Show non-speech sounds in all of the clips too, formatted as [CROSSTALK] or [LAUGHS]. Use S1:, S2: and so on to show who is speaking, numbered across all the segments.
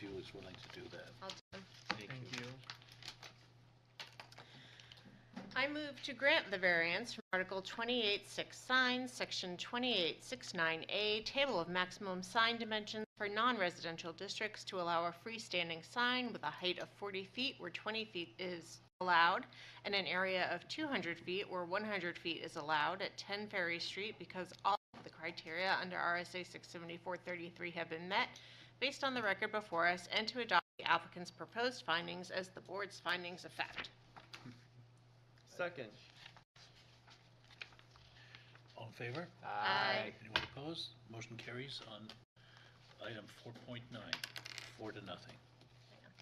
S1: you was willing to do that.
S2: I'll do them.
S1: Thank you.
S2: I move to grant the variance from Article 28.6 signs, Section 28.69A, Table of Maximum Sign Dimensions for non-residential districts to allow a freestanding sign with a height of 40 feet where 20 feet is allowed, and an area of 200 feet where 100 feet is allowed at 10 Ferry Street because all of the criteria under RSA 674-33 have been met based on the record before us, and to adopt the applicant's proposed findings as the board's findings of fact.
S3: Second.
S1: All in favor?
S2: Aye.
S1: Anyone opposed? Motion carries on item 4.9, four to nothing.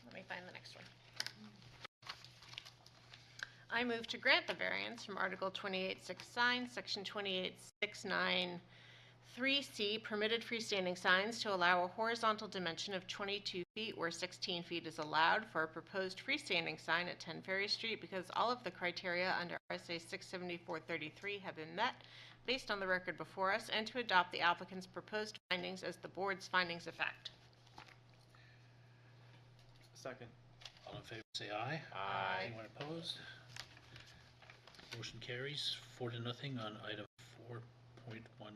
S2: Let me find the next one. I move to grant the variance from Article 28.6 signs, Section 28.693C, permitted freestanding signs to allow a horizontal dimension of 22 feet where 16 feet is allowed for a proposed freestanding sign at 10 Ferry Street because all of the criteria under RSA 674-33 have been met based on the record before us, and to adopt the applicant's proposed findings as the board's findings of fact.
S3: Second.
S1: All in favor, say aye.
S2: Aye.
S1: Anyone opposed? Motion carries four to nothing on item 4.10. oh. And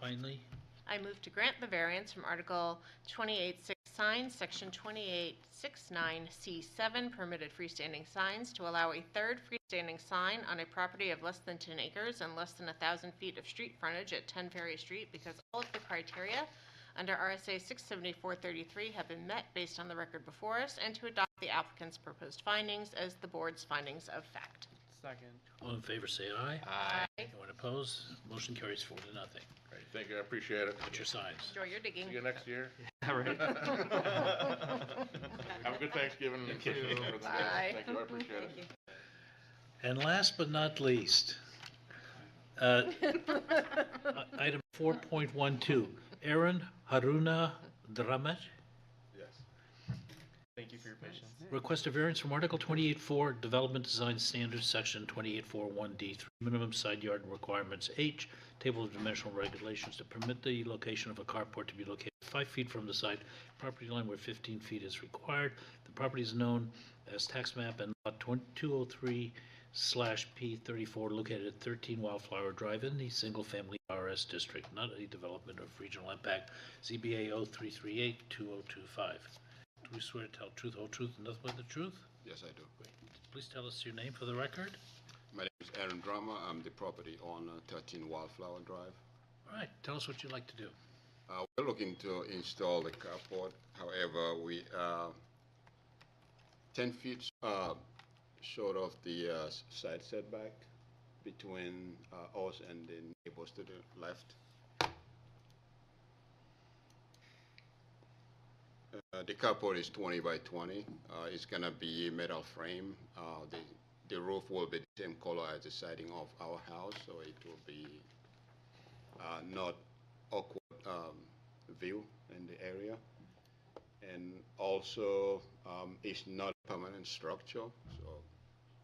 S1: finally,
S2: I move to grant the variance from Article 28.6 signs, Section 2869C7, permitted freestanding signs to allow a third freestanding sign on a property of less than 10 acres and less than 1,000 feet of street frontage at 10 Ferry Street because all of the criteria under RSA 674-33 have been met based on the record before us, and to adopt the applicant's proposed findings as the board's findings of fact.
S3: Second.
S1: all in favor, say aye.
S4: Aye.
S1: Anyone opposed? Motion carries four to nothing.
S4: Great, thank you, I appreciate it.
S1: Put your signs.
S2: Enjoy your digging.
S4: See you next year.
S3: [LAUGHS] All
S4: [LAUGHS] Have a good Thanksgiving. and
S3: Thank you.
S4: Christmas and everything else.
S2: Bye.
S4: Thank you, I appreciate it.
S1: And last but not least, uh, i- item 4.12, Aaron Haruna Dramat,
S4: Yes.
S3: Thank you for your patience.
S1: request a variance from Article 28.4, Development Design Standards, Section 28.41D, minimum side yard requirements H, Table of Dimensional Regulations to permit the location of a carport to be located five feet from the side property line where 15 feet is required. The property is known as tax map and lot 203 slash P thirty-four located at thirteen Wildflower Drive in the single-family RS district, not a development of regional impact, ZBA 0338-2025. Do we swear to tell truth, whole truth, and nothing but the truth?
S5: Yes, I do.
S1: Please tell us your name for the record.
S5: My name is Aaron Drama. I'm the property owner, 13 Wildflower Drive.
S1: All right, tell us what you'd like to do.
S5: Uh, We're looking to install the carport, however, we are 10 feet uh, short of the uh, s- side setback between uh, us and the neighbors to the left. Uh, The carport is 20 by 20. Uh, It's going to be metal frame. Uh, The the roof will be the same color as the siding of our house, so it will be uh, not awkward um, view in the area. And also, um, it's not a permanent structure, so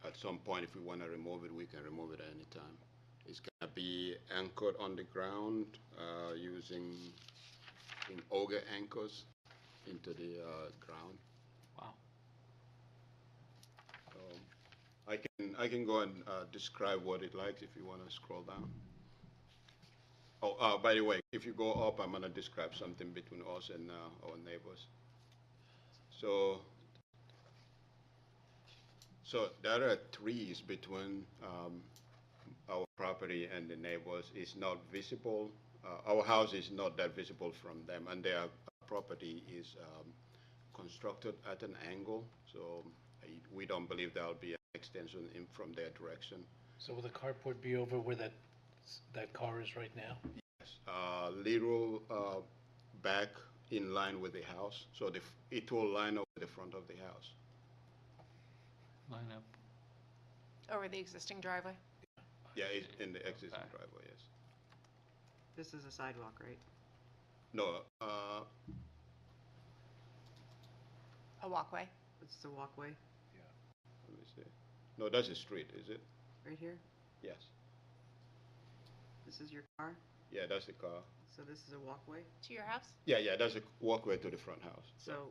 S5: at some point, if we want to remove it, we can remove it at any time. It's going to be anchored on the ground uh, using in auger anchors into the uh, ground.
S3: Wow.
S5: So I can I can go and uh, describe what it likes if you want to scroll down. Oh, uh, by the way, if you go up, I'm gonna describe something between us and uh, our neighbors. So, so there are trees between um, our property and the neighbors. It's not visible. Uh, our house is not that visible from them, and their property is um, constructed at an angle. So I, we don't believe there'll be an extension in from their direction.
S1: So will the carport be over where that, s- that car is right now?
S5: uh, little uh, back in line with the house, so the, f- it will line up with the front of the house.
S3: Line up.
S2: [LAUGHS] Over the existing driveway?
S5: Yeah, it's in the existing
S3: Okay.
S5: driveway, yes.
S6: This is a sidewalk, right?
S5: No, uh,
S2: A walkway?
S6: It's the walkway,
S5: let me see. No, that's a street, is it?
S6: right here?
S5: Yes.
S6: This is your car,
S5: Yeah, that's the car.
S6: so this is a walkway?
S2: To your house?
S5: Yeah, yeah, that's a walkway to the front house.
S6: So